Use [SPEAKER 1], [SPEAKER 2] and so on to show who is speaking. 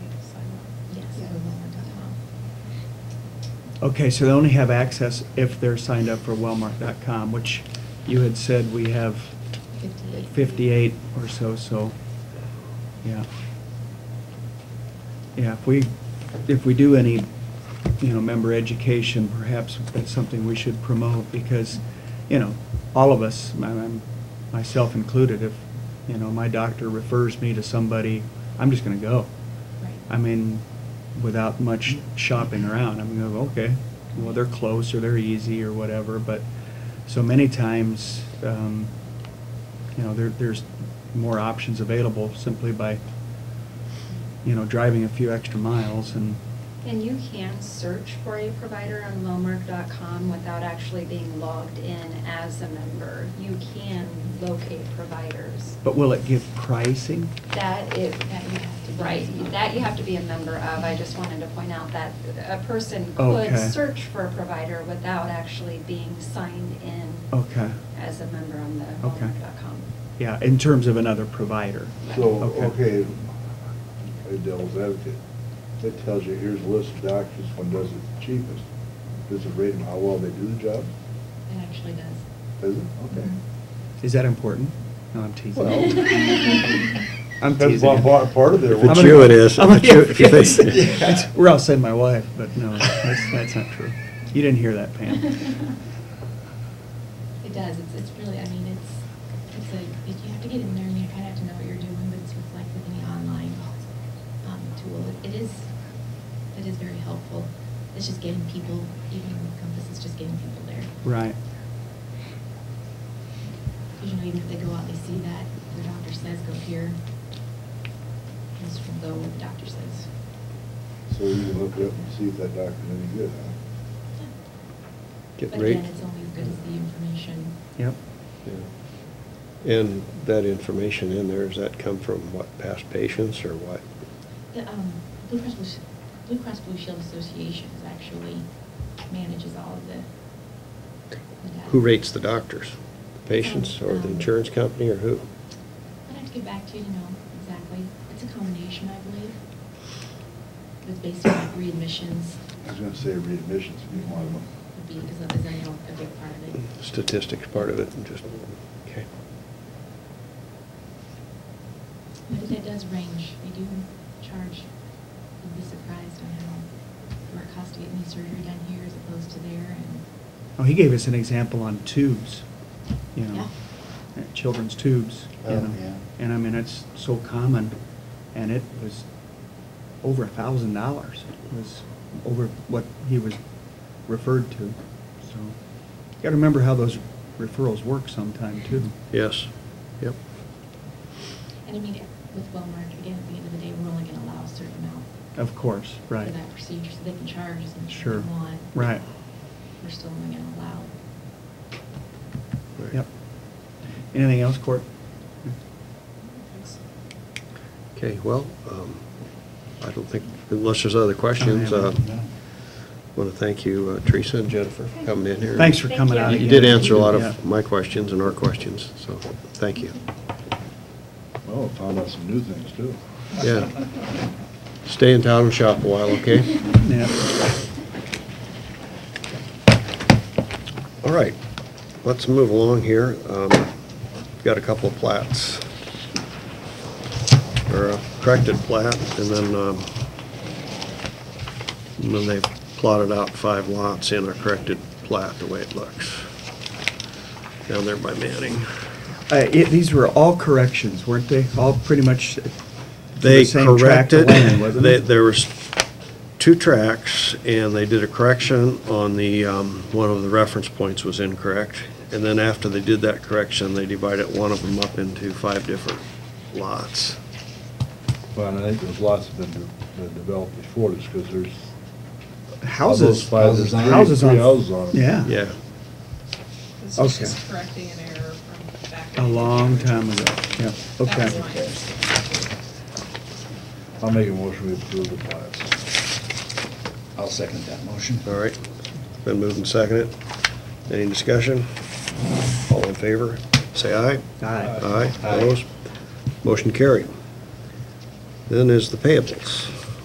[SPEAKER 1] Okay, so they only have access if they're signed up for wellmark.com, which you had said we have
[SPEAKER 2] 58.
[SPEAKER 1] 58 or so, so, yeah. Yeah, if we, if we do any, you know, member education, perhaps that's something we should promote, because, you know, all of us, my- my- myself included, if, you know, my doctor refers me to somebody, I'm just gonna go.
[SPEAKER 2] Right.
[SPEAKER 1] I mean, without much shopping around, I'm gonna go, okay, well, they're close, or they're easy, or whatever, but so many times, um, you know, there, there's more options available simply by, you know, driving a few extra miles and,
[SPEAKER 2] And you can search for a provider on Lowmark.com without actually being logged in as a member. You can locate providers.
[SPEAKER 1] but will it give pricing?
[SPEAKER 2] That is,
[SPEAKER 3] That you have to be.
[SPEAKER 2] right, that you have to be a member of. I just wanted to point out that a person could
[SPEAKER 1] Okay.
[SPEAKER 2] search for a provider without actually being signed in
[SPEAKER 1] Okay,
[SPEAKER 2] as a member on the
[SPEAKER 1] Oh. Okay.
[SPEAKER 2] Lowmark.com.
[SPEAKER 1] yeah, in terms of another provider.
[SPEAKER 4] So,
[SPEAKER 1] Okay.
[SPEAKER 4] okay, hey, devil's advocate, that tells you, here's a list of doctors, which one does it the cheapest. Does it rate them how well they do the job?
[SPEAKER 3] It actually does.
[SPEAKER 4] Does it? Okay.
[SPEAKER 1] Is that important? No, I'm teasing.
[SPEAKER 4] Well-
[SPEAKER 1] I'm
[SPEAKER 4] That's
[SPEAKER 1] teasing.
[SPEAKER 4] one part- part of their
[SPEAKER 5] If it's
[SPEAKER 4] work.
[SPEAKER 5] you, it is.
[SPEAKER 1] I'm
[SPEAKER 5] If you- if you
[SPEAKER 1] gonna-
[SPEAKER 5] think-
[SPEAKER 1] That's- Or I'll say my wife, but no, that's, that's not true. You didn't hear that, Mm-hmm. Pam.
[SPEAKER 3] It does, it's, it's really, I mean, it's, it's a, it- you have to get in there and you kind of have to know what you're doing, but it's with like with any online, um, tool. It- It is, it is very helpful. It's just getting people, even Compass is just getting people there.
[SPEAKER 1] Right.
[SPEAKER 3] Because, you know, even if they go out, they see that, the doctor says, go here. Just go where the doctor says.
[SPEAKER 4] So you can look it up and see if that doctor's any good, huh?
[SPEAKER 5] Get
[SPEAKER 3] But
[SPEAKER 5] rate.
[SPEAKER 3] again, it's only as good as the information.
[SPEAKER 1] Yep.
[SPEAKER 5] Yeah. And that information in there, does that come from what, past patients or what?
[SPEAKER 3] The um, Blue Cross Blue, Sh- Blue Cross Blue Shield Association is actually manages all of the. the data.
[SPEAKER 5] Who rates the doctors? The Patients or the
[SPEAKER 3] Um,
[SPEAKER 5] insurance company or who?
[SPEAKER 3] I'd have to get back to you to know exactly. It's a combination, I believe. It's based on like readmissions
[SPEAKER 4] I was gonna say readmissions would be one of them.
[SPEAKER 3] would be, is a, is a a big part of it.
[SPEAKER 5] Statistics part of it and just, okay.
[SPEAKER 3] But that does range. They do charge, you'd be surprised on how, what it costs to get knee surgery done here as opposed to there and.
[SPEAKER 1] Oh, he gave us an example on tubes, you know, uh, children's tubes, you
[SPEAKER 4] Oh,
[SPEAKER 1] know.
[SPEAKER 4] yeah.
[SPEAKER 1] And I mean, it's so common, and it was over a thousand dollars, was over what he was referred to, so. You gotta remember how those referrals work sometime, too.
[SPEAKER 5] Yes, yep.
[SPEAKER 3] And I mean, with Wellmark, again, at the end of the day, we're only gonna allow a certain amount
[SPEAKER 1] Of course, Oh, right.
[SPEAKER 3] for that procedure, so they can charge as much as they
[SPEAKER 1] Sure.
[SPEAKER 3] want.
[SPEAKER 1] Right.
[SPEAKER 3] We're still only gonna allow.
[SPEAKER 5] Right.
[SPEAKER 1] Yep. Anything else, Court?
[SPEAKER 5] Okay, well, um, I don't think, unless there's other questions, uh, I want to thank you, uh, Teresa and Jennifer, for coming in here.
[SPEAKER 1] Thanks for
[SPEAKER 2] Thank
[SPEAKER 1] coming
[SPEAKER 2] you.
[SPEAKER 1] out.
[SPEAKER 5] You
[SPEAKER 1] again.
[SPEAKER 5] did answer a lot
[SPEAKER 1] Yeah.
[SPEAKER 5] of my questions and our questions, so thank you.
[SPEAKER 4] Well, I Oh, found out some new things too.
[SPEAKER 5] Yeah. Stay in town and shop a while, okay?
[SPEAKER 1] Yeah.
[SPEAKER 5] All right, let's move along here. Um, Got a couple of plats. Or a corrected plat, and then, um, and then they've plotted out five lots in a corrected plat, the way it looks. Down there by Manning.
[SPEAKER 1] Uh, it- These were all corrections, weren't they? All pretty much
[SPEAKER 5] They
[SPEAKER 1] the same tract of
[SPEAKER 5] corrected,
[SPEAKER 1] land, wasn't
[SPEAKER 5] they-
[SPEAKER 1] it?
[SPEAKER 5] there was two tracks, and they did a correction on the, um, one of the reference points was incorrect. And then after they did that correction, they divided one of them up into five different lots.
[SPEAKER 4] Well, and I think those lots have been de- been developed before this, because there's.
[SPEAKER 1] Houses.
[SPEAKER 4] Of those five, there's three-
[SPEAKER 1] Houses on-
[SPEAKER 4] Three houses on it.
[SPEAKER 1] Yeah.
[SPEAKER 5] Yeah,
[SPEAKER 6] This
[SPEAKER 1] Okay.
[SPEAKER 6] is just correcting an error from back.
[SPEAKER 1] A long time ago, yeah,
[SPEAKER 6] That was
[SPEAKER 1] okay.
[SPEAKER 6] my understanding.
[SPEAKER 4] I'll make a motion to approve the plats.
[SPEAKER 7] I'll second that motion.
[SPEAKER 5] all right. Been moved and seconded. Any discussion? All in favor, say aye.
[SPEAKER 1] Aye.
[SPEAKER 5] Aye,
[SPEAKER 7] Aye.
[SPEAKER 5] opposed? Motion carried. Then is the payables.